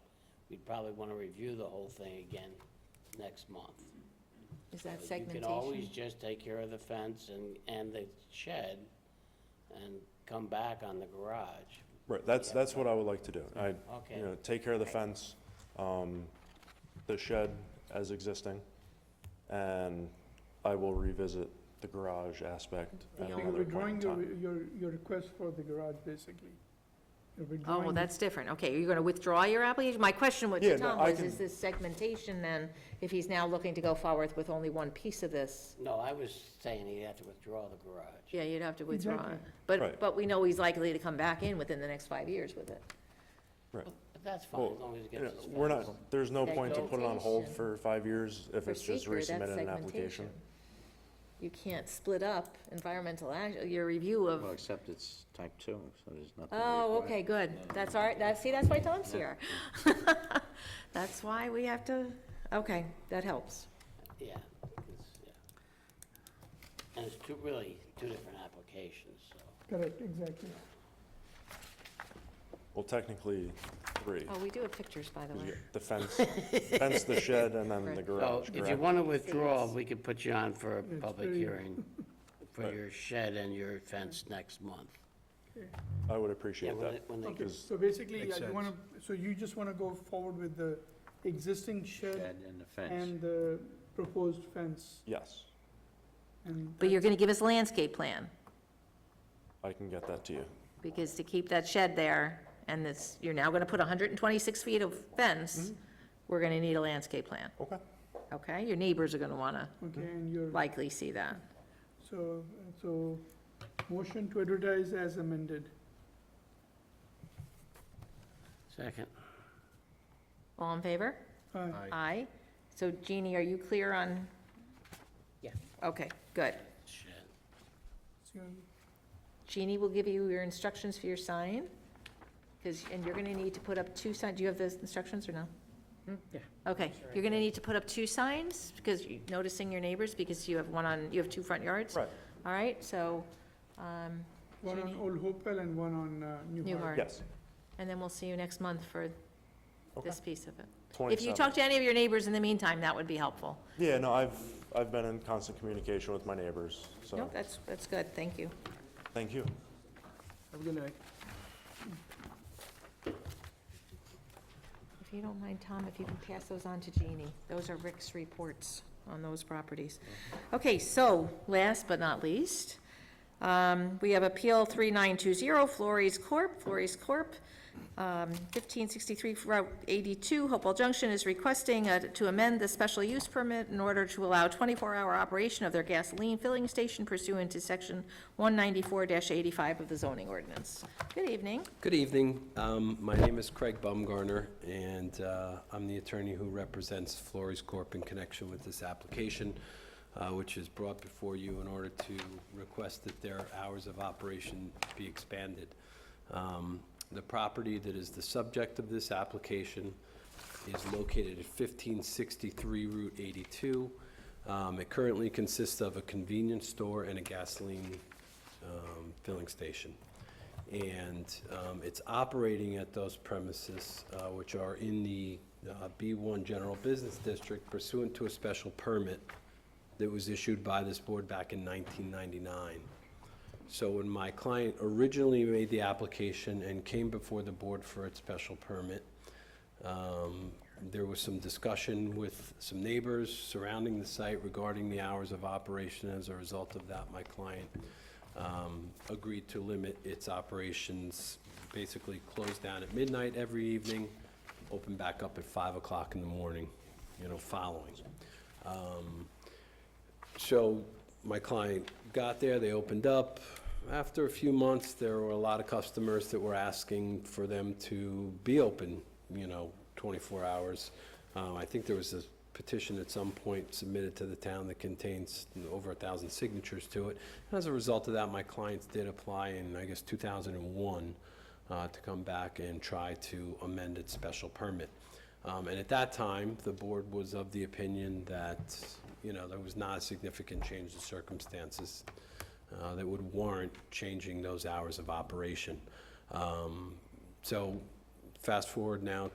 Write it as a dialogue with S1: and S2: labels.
S1: you'd probably want to review the whole thing again next month.
S2: Is that
S1: So You can always
S2: segmentation?
S1: just take care of the fence and, and the shed and come back on the garage.
S3: Right, that's, that's what I would like to do. I,
S1: Okay.
S3: you know, take care of the fence, um, the shed as existing, and I will revisit the garage aspect
S2: The
S3: at
S2: only-
S3: another point in
S4: Withdrawing your,
S3: time.
S4: your, your request for the garage, basically. You're
S2: Oh,
S4: withdrawing
S2: well,
S4: it.
S2: that's different. Okay, you're going to withdraw your application? My question with
S3: Yeah, no,
S2: Tom
S3: I
S2: was,
S3: can-
S2: is this segmentation then, if he's now looking to go forward with only one piece of this?
S1: No, I was saying he'd have to withdraw the garage.
S2: Yeah, you'd have to withdraw it.
S4: Exactly.
S2: But,
S3: Right.
S2: but we know he's likely to come back in within the next five years with it.
S3: Right.
S1: But that's fine,
S3: Well,
S1: as long as it
S3: you know,
S1: gets his
S3: We're
S1: fence.
S3: not, there's no point to put it on hold
S2: Segmentation.
S3: for five years if
S2: For
S3: it's just
S2: seeker, that's
S3: resubmitted an
S2: segmentation.
S3: application.
S2: You can't split up environmental, act- your review of
S5: Well, except it's type two, so there's nothing.
S2: Oh,
S5: required.
S2: okay, good. That's all right. That, see, that's why Tom's here. That's why we have to, okay, that helps.
S1: Yeah, it's, yeah. And it's two, really, two different applications, so.
S4: Correct, exactly.
S3: Well, technically, three.
S2: Oh, we do have pictures, by the
S3: 'cause
S2: way.
S3: you got The fence, fence, the shed, and then the
S2: Right.
S1: So
S3: garage,
S1: if you
S3: correct?
S1: want to withdraw, we could put you on for a
S4: It's
S1: public
S4: very-
S1: hearing for
S3: Right.
S1: your shed and your fence next month.
S3: I would
S1: Yeah,
S3: appreciate
S1: when
S3: that.
S1: they- when they
S4: Okay,
S1: get
S3: Because-
S4: so basically,
S5: Makes
S4: yeah,
S5: sense.
S4: you wanna, so you just wanna go forward with the existing shed
S5: Shed and the fence.
S4: and the proposed fence
S3: Yes,
S4: and.
S2: But you're gonna give us a landscape plan,
S3: I can get that to you.
S2: because to keep that shed there, and this, you're now gonna put hundred and twenty-six feet of fence, we're gonna need a landscape plan,
S3: Okay.
S2: okay? Your neighbors are gonna wanna
S4: Okay, and you're,
S2: likely see that.
S4: so, so motion to advertise as amended.
S1: second.
S2: All in favor?
S4: Aye.
S2: Aye. So Jeannie, are you clear on?
S1: Yeah.
S2: Okay, good.
S1: Shed.
S4: So-
S2: Jeannie will give you your instructions for your sign, because, and you're gonna need to put up two signs, do you have those instructions or no? Yeah. Okay, you're gonna need to put up two signs, because you, noticing your neighbors, because you have one on, you have two front yards.
S3: Right.
S2: All right, so, um,
S4: One on
S2: Jeannie?
S4: Old Hopewell and one on uh, New
S2: New Hart.
S4: Hartz.
S3: Yes.
S2: And then we'll see you next month for this piece of it. If you
S3: 27.
S2: talk to any of your neighbors in the meantime, that would be helpful.
S3: Yeah, no, I've, I've been in constant communication with my neighbors,
S2: No,
S3: so,
S2: that's, that's good, thank you.
S3: thank you.
S4: Have a good night.
S2: If you don't mind, Tom, if you can pass those on to Jeannie. Those are Rick's reports on those properties. Okay, so, last but not least, um, we have Appeal 3920, Flores Corp., Flores Corp., um, 1563 Route 82, Hopewell Junction is requesting uh, to amend the special use permit in order to allow 24-hour operation of their gasoline filling station pursuant to Section 194-85 of the zoning ordinance. Good evening.
S6: Good evening. Um, My name is Craig Baumgartner, and uh, I'm the attorney who represents Flores Corp. in connection with this application, uh, which is brought before you in order to request that their hours of operation be expanded. Um, The property that is the subject of this application is located at 1563 Route 82. Um, It currently consists of a convenience store and a gasoline um, filling station and um, it's operating at those premises, uh, which are in the uh, B1 General Business District pursuant to a special permit that was issued by this board back in 1999. So when my client originally made the application and came before the board for its special permit, um, There was some discussion with some neighbors surrounding the site regarding the hours of operation. As a result of that, my client um, agreed to limit its operations, basically close down at midnight every evening, open back up at 5 o'clock in the morning, you know, following. Um, so my client got there, they opened up. After a few months, there were a lot of customers that were asking for them to be open, you know, 24 hours. Um, I think there was a petition at some point submitted to the town that contains over a thousand signatures to it. And As a result of that, my clients did apply in, I guess, 2001 uh, to come back and try to amend its special permit. Um, And at that time, the board was of the opinion that, you know, there was not a significant change in circumstances uh, that would warrant changing those hours of operation. Um, So fast forward now